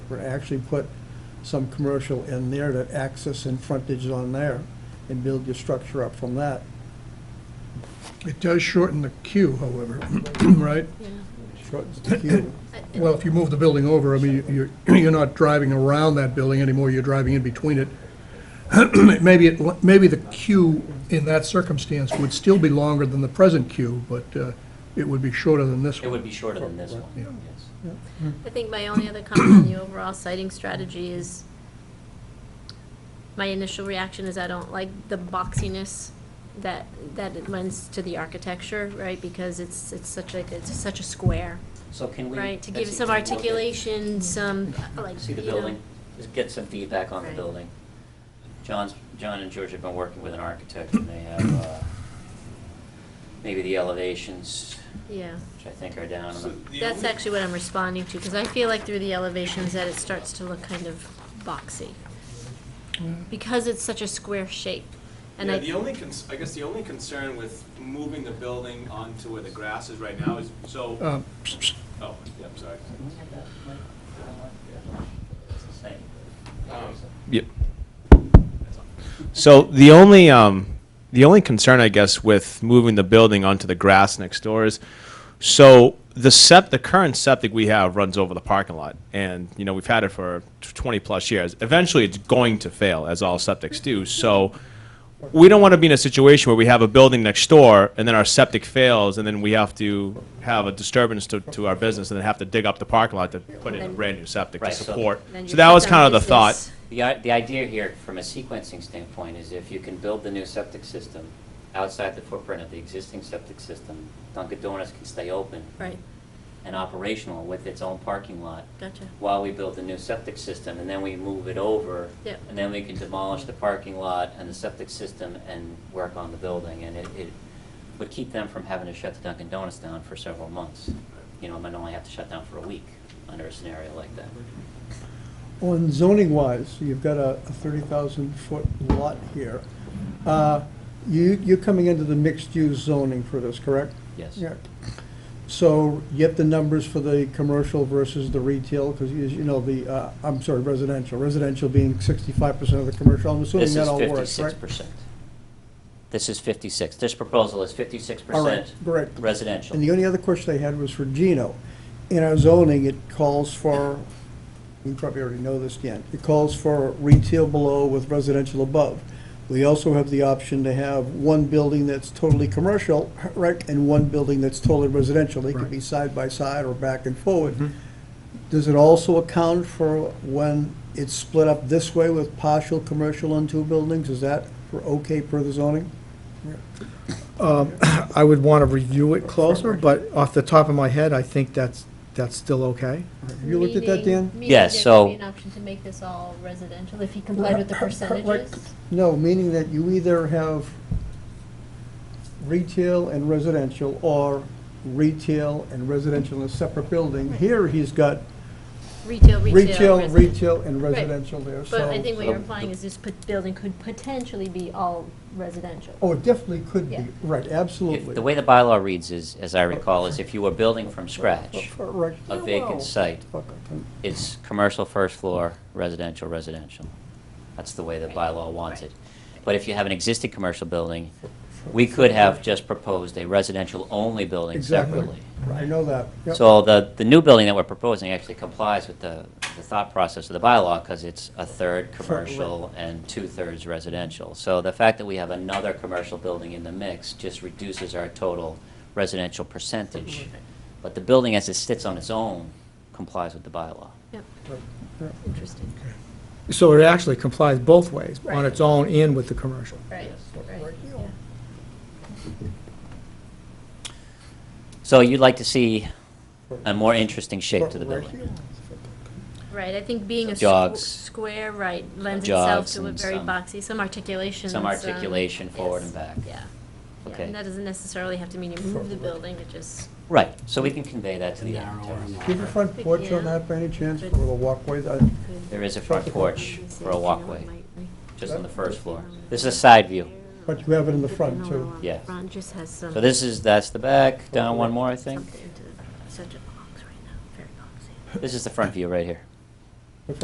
paper, actually put some commercial in there to access and frontage on there and build your structure up from that. It does shorten the queue, however, right? Shortens the queue. Well, if you move the building over, I mean, you're, you're not driving around that building anymore, you're driving in between it. Maybe it, maybe the queue in that circumstance would still be longer than the present queue, but uh, it would be shorter than this It one. would be shorter than this one, Yeah. yes. I think my only other comment on the overall citing strategy is, my initial reaction is I don't like the boxiness that, that it lends to the architecture, right? Because it's, it's such like, it's such a square, So can we? right? To give Betsy, some can we look at- Mm-hmm. articulation, some, uh, like, See you the know. building, just get some feedback on the Right. building. John's, John and George have been working with an architect, and they have, uh, maybe the elevations, Yeah, which I think are down. So the that's only- actually what I'm responding to, because I feel like through the elevations that it starts to look kind of boxy. Because it's such a square shape, and I. Mm-hmm. Yeah, the only, cons- I guess the only concern with moving the building onto where the grass is right now is, so, oh, Um, yeah, I'm sorry. Same. Um, Yep. that's all. So the only um, the only concern, I guess, with moving the building onto the grass next door is, so the sep the current septic we have runs over the parking lot, and you know we've had it for tw- 20 plus years. Eventually, it's going to fail, as all septics do. So. We don't want to be in a situation where we have a building next door and then our septic fails and then we have to have a disturbance to, to our business and then have to dig up the parking lot to put in a brand new septic to Right, so- support. then So you that put was down kind of the business. thought. The, i- the idea here, from a sequencing standpoint, is if you can build the new septic system outside the footprint of the existing septic system, Dunkin' Donuts can stay open Right, and operational with its own parking lot gotcha. while we build the new septic system, and then we move it over. Yep. And then we can demolish the parking lot and the septic system and work on the building, and it, it would keep them from having to shut the Dunkin' Donuts down for several months. You know, might only have to shut down for a week under a scenario like that. On zoning wise, you've got a thirty thousand foot lot here. Uh, You, you're coming into the mixed use zoning for this, correct? Yes. Yeah. So get the numbers for the commercial versus the retail, because as you know, the, uh, I'm sorry, residential, residential being sixty-five percent of the commercial, I'm assuming This that is all works, fifty-six right? percent. This is fifty-six. This proposal is fifty-six All right, percent correct. residential. And the only other question I had was for Gino. In our zoning, it calls for, you probably already know this, Dan, it calls for retail below with residential above. We also have the option to have one building that's totally commercial, right, and one building that's totally residential. They could be side by side or back and forward. Does it also account for when it's split up this way with partial commercial on two buildings? Is that for okay per the zoning? I would want to review it closer, but off the top of my head, I think that's, that's still okay. Have you looked at that, Dan? Meaning- meaning Yes, there so- could be an option to make this all residential if he complied with the percentages? No, meaning that you either have retail and residential, or retail and residential in a separate building. Here, he's got Retail, retail, retail, residential. retail, and Right. residential there, so. But I think what you're implying is this put- building could potentially be all residential. Oh, it definitely could be, Yeah. right, If, absolutely. the way the bylaw reads is, as I recall, is if you were building from scratch, Right. a vacant site, Fuck, I can- it's commercial first floor, residential, residential. That's the way the bylaw wants it. But if you have an existing commercial building, we could have just proposed a residential-only building Exactly. separately. I know that. Yep. So the, the new building that we're proposing actually complies with the, the thought process of the bylaw, because it's a third commercial and two-thirds residential. So the fact that we have another commercial building in the mix just reduces our total residential percentage. But the building as it sits on its own complies with the bylaw. Yep, Right, right. interesting. So it actually complies both ways, on its own and with the commercial. Right, right, yeah. So you'd like to see a more interesting shape to the Right. building? Right, I think being a squ- Jogs. square, right, lends itself Jogs to a and very some- boxy, some articulation. some articulation forward and back. Yeah. Yeah, Okay. And that doesn't necessarily have to mean you move the building, it just. Right, so we can convey that to the architect. Do you have a front porch on Yeah. that by any chance, or a walkway? I- could- There is a front porch for a walkway, just on the first floor. This is a side view. But you have it in the front, too. Yeah. Front just has some. So this is, that's the back, down one more, I think. Something into such a box right now, very boxy. This is the front view right here.